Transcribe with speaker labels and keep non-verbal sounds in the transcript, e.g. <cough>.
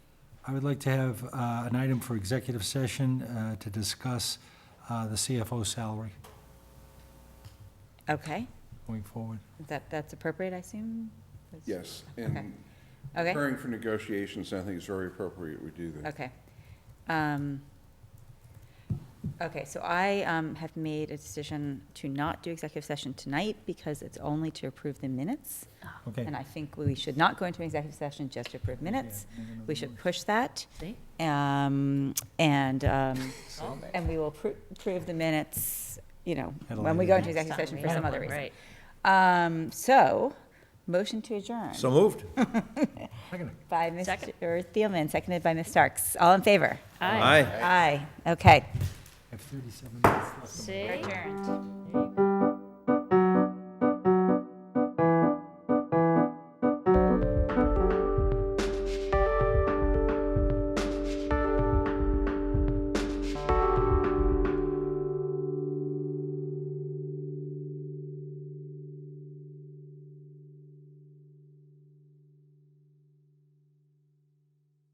Speaker 1: I would like to have uh, an item for executive session uh, to discuss uh, the CFO salary
Speaker 2: Okay,
Speaker 1: going forward.
Speaker 2: that, that's appropriate, I assume?
Speaker 3: Yes,
Speaker 2: Okay.
Speaker 3: and
Speaker 2: Okay,
Speaker 3: preparing for negotiations, I think it's very appropriate we do that.
Speaker 2: okay. Um, Okay, so I um, have made a decision to not do executive session tonight because it's only to approve
Speaker 1: <laughs>
Speaker 2: the minutes.
Speaker 1: Okay.
Speaker 2: And I think we should not go into executive session just to approve minutes.
Speaker 1: Yeah, make another
Speaker 2: We should
Speaker 1: motion.
Speaker 2: push that.
Speaker 4: See?
Speaker 2: Um, And, um, and we will pro- approve the minutes, you know,
Speaker 1: At a
Speaker 2: when we
Speaker 1: later
Speaker 2: go into
Speaker 1: date.
Speaker 2: executive
Speaker 4: Next time
Speaker 2: session
Speaker 4: we
Speaker 2: for some
Speaker 4: have
Speaker 2: other
Speaker 4: one,
Speaker 2: reason.
Speaker 4: right.
Speaker 2: Um, So, motion to adjourn.
Speaker 5: So moved.
Speaker 1: Second.
Speaker 2: By Mr.
Speaker 4: Second.
Speaker 2: Thielman, seconded by Ms. Starks. All in favor?
Speaker 4: Aye.
Speaker 5: Aye.
Speaker 2: Aye. Okay.
Speaker 1: I have 37 minutes left.
Speaker 4: See?
Speaker 2: Adjourned.